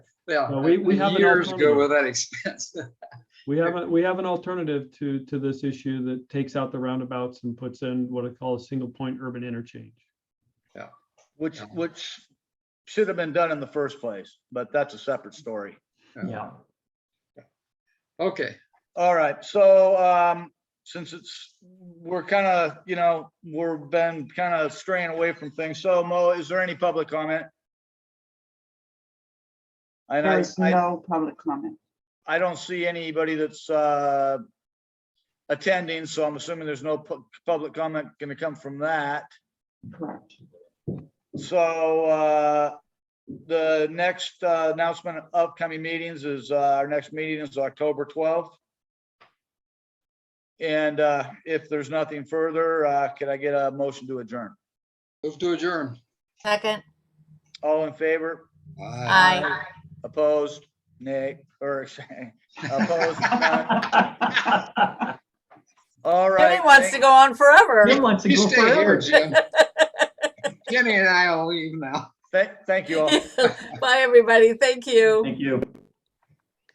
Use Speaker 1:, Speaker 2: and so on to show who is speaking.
Speaker 1: Yeah,
Speaker 2: No, we- we have an
Speaker 1: years ago
Speaker 2: alternative.
Speaker 1: with that expense.
Speaker 2: We have a, we have an alternative to, to this issue that takes out the roundabouts and puts in what I call a single point urban interchange.
Speaker 3: which,
Speaker 1: Yeah.
Speaker 3: which should have been done in the first place, but that's a separate story.
Speaker 2: Yeah.
Speaker 1: Okay,
Speaker 3: All right, so, um, since it's, we're kind of, you know, we're been kind of straying away from things. So Mo, is there any public comment? And
Speaker 4: There
Speaker 3: I,
Speaker 4: is
Speaker 3: I,
Speaker 4: no public comment.
Speaker 3: I don't see anybody that's, uh, attending, so I'm assuming there's no pu- public comment gonna come from that.
Speaker 4: Correct.
Speaker 3: So, uh, the next uh, announcement of upcoming meetings is, uh, our next meeting is October twelfth. And, uh, if there's nothing further, uh, could I get a motion to adjourn?
Speaker 1: move to adjourn.
Speaker 5: Second,
Speaker 3: All in favor?
Speaker 5: aye.
Speaker 3: Opposed? Nay, or opposed? None? All right.
Speaker 5: Jimmy wants to
Speaker 3: thank-
Speaker 5: go on forever.
Speaker 6: Jim wants to
Speaker 1: You
Speaker 6: go
Speaker 1: stay here,
Speaker 6: forever.
Speaker 1: Jim. Jimmy and I will leave now.
Speaker 3: Thank, thank you all.
Speaker 5: Bye, everybody. Thank you.
Speaker 6: Thank you.